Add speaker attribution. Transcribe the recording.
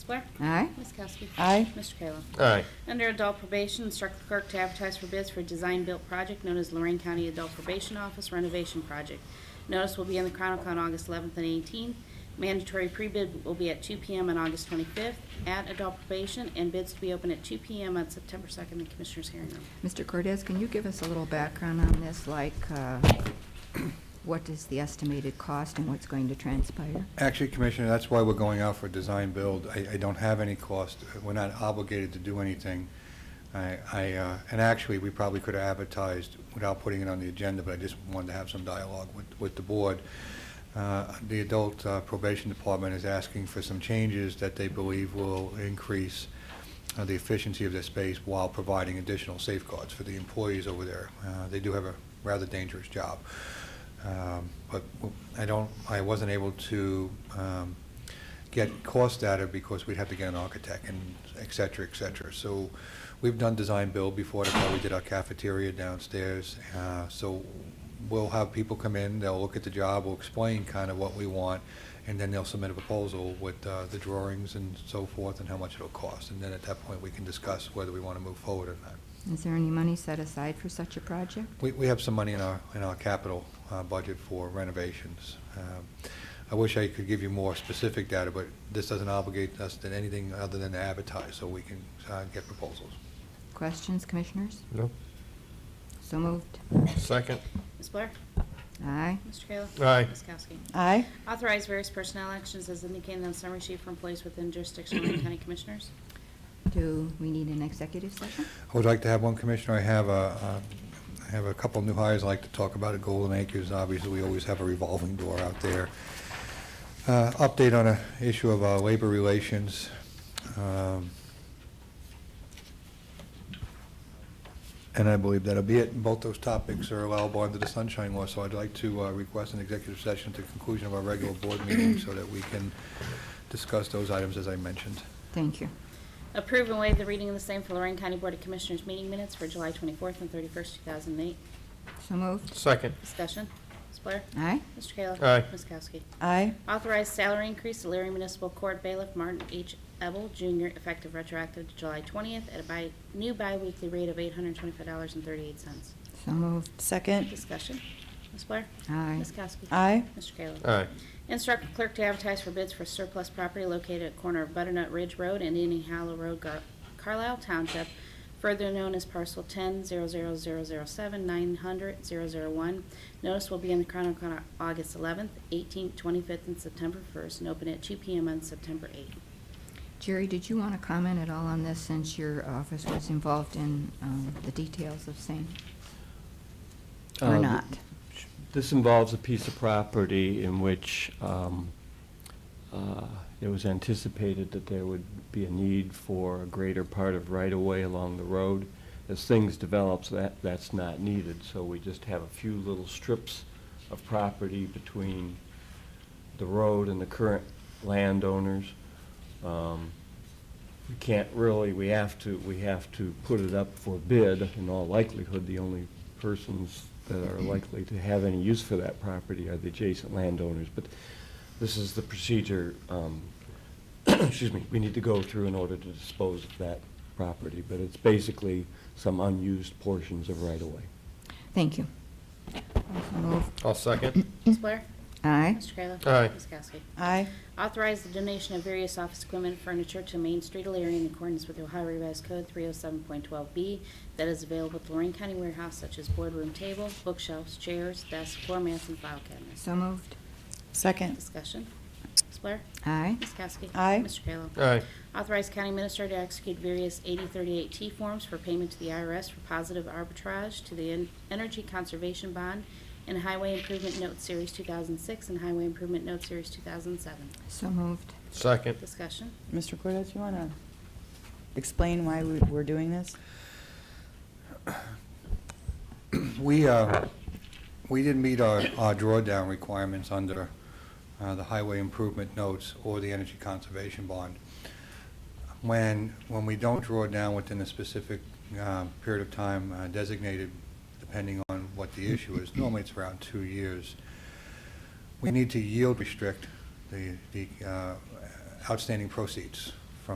Speaker 1: Ms. Blair?
Speaker 2: Aye.
Speaker 1: Ms. Kowski?
Speaker 2: Aye.
Speaker 1: Mr. Kayla?
Speaker 3: Aye.
Speaker 1: Under adult probation, instruct the clerk to advertise for bids for a design-built project known as Lorraine County Adult Probation Office Renovation Project. Notice will be in the Chronicle on August 11th and 18th. Mandatory pre-bid will be at 2 PM on August 25th at adult probation, and bids to be open at 2 PM on September 2nd in Commissioners' hearing room.
Speaker 2: Mr. Cortez, can you give us a little background on this, like uh, what is the estimated cost and what's going to transpire?
Speaker 4: Actually, Commissioner, that's why we're going out for design build. I, I don't have any cost. We're not obligated to do anything. I, I, uh, and actually, we probably could have advertised without putting it on the agenda, but I just wanted to have some dialogue with, with the board. Uh, The Adult uh, Probation Department is asking for some changes that they believe will increase uh, the efficiency of their space while providing additional safeguards for the employees over there. Uh, They do have a rather dangerous job. Um, But w- I don't, I wasn't able to um, get cost data because we'd have to get an architect and et cetera, et cetera. So we've done design build before, that's how we did our cafeteria downstairs. Uh, So we'll have people come in, they'll look at the job, we'll explain kind of what we want, and then they'll submit a proposal with uh, the drawings and so forth and how much it'll cost. And then at that point, we can discuss whether we want to move forward or not.
Speaker 2: Is there any money set aside for such a project?
Speaker 4: We, we have some money in our, in our capital uh, budget for renovations. Um, I wish I could give you more specific data, but this doesn't obligate us to anything other than to advertise, so we can uh, get proposals.
Speaker 2: Questions, commissioners?
Speaker 3: No.
Speaker 2: So moved.
Speaker 3: Second.
Speaker 1: Ms. Blair?
Speaker 2: Aye.
Speaker 1: Mr. Kayla?
Speaker 3: Aye.
Speaker 1: Ms. Kowski?
Speaker 5: Aye.
Speaker 1: Authorize various personnel actions as indicated on summary sheet for employees within jurisdiction of Lorraine County Commissioners.
Speaker 2: Do we need an executive session?
Speaker 4: I would like to have one, Commissioner, I have a, uh, I have a couple new hires I'd like to talk about at Golden Acres. Obviously, we always have a revolving door out there. Uh, Update on an issue of uh, labor relations. Um, And I believe that'll be it. Both those topics are allowable under the Sunshine Law, so I'd like to uh, request an executive session at the conclusion of our regular board meeting so that we can discuss those items as I mentioned.
Speaker 2: Thank you.
Speaker 1: Approve and waive the reading of the same for Lorraine County Board of Commissioners meeting minutes for July 24th and 31st, 2008.
Speaker 2: So moved.
Speaker 3: Second.
Speaker 1: Discussion. Ms. Blair?
Speaker 2: Aye.
Speaker 1: Mr. Kayla?
Speaker 3: Aye.
Speaker 1: Ms. Kowski?
Speaker 5: Aye.
Speaker 1: Authorize salary increase to Leary Municipal Court Bailiff Martin H. Ebel Jr., effective retroactive to July 20th at a bi- new biweekly rate of $825.38.
Speaker 2: So moved.
Speaker 5: Second.
Speaker 1: Discussion. Ms. Blair?
Speaker 2: Aye.
Speaker 1: Ms. Kowski?
Speaker 5: Aye.
Speaker 1: Mr. Kayla?
Speaker 3: Aye.
Speaker 1: Instruct the clerk to advertise for bids for surplus property located at corner of Butternut Ridge Road and Indian Hollow Road, Gar- Carlisle Township, further known as parcel 10-00007-900-001. Notice will be in the Chronicle on August 11th, 18th, 25th, and September 1st, and open at 2 PM on September 8th.
Speaker 2: Jerry, did you want to comment at all on this since your office was involved in um, the details of same? Or
Speaker 6: Uh,
Speaker 2: not?
Speaker 6: This involves a piece of property in which um, uh, it was anticipated that there would be a need for a greater part of right-of-way along the road. As things develops, that, that's not needed, so we just have a few little strips of property between the road and the current landowners. Um, We can't really, we have to, we have to put it up for bid. In all likelihood, the only persons that are likely to have any use for that property are the adjacent landowners. But this is the procedure, um, excuse me, we need to go through in order to dispose of that property. But it's basically some unused portions of right-of-way.
Speaker 2: Thank you. So moved.
Speaker 3: I'll second.
Speaker 1: Ms. Blair?
Speaker 2: Aye.
Speaker 1: Mr. Kayla?
Speaker 3: Aye.
Speaker 1: Ms. Kowski?
Speaker 5: Aye.
Speaker 1: Authorize the donation of various office equipment and furniture to Main Street Elaria in accordance with Ohio Revised Code 307.12B that is available at the Lorraine County Warehouse such as boardroom table, bookshelves, chairs, desks, floor mats, and file cabinets.
Speaker 2: So moved.
Speaker 5: Second.
Speaker 1: Discussion. Ms. Blair?
Speaker 2: Aye.
Speaker 1: Ms. Kowski?
Speaker 5: Aye.
Speaker 1: Mr. Kayla?
Speaker 3: Aye.
Speaker 1: Authorize County Administrator to execute various 8038T forms for payment to the IRS for positive arbitrage to the En- Energy Conservation Bond and Highway Improvement Note Series 2006 and Highway Improvement Note Series 2007.
Speaker 2: So moved.
Speaker 3: Second.
Speaker 1: Discussion.
Speaker 5: Mr. Cortez, you want to explain why we- we're doing this?
Speaker 4: We, uh, we didn't meet our our drawdown requirements under uh, the highway improvement notes or the energy conservation bond. When, when we don't draw down within a specific uh, period of time uh, designated, depending on what the issue is, normally it's around two years, we need to yield restrict the the uh, outstanding proceeds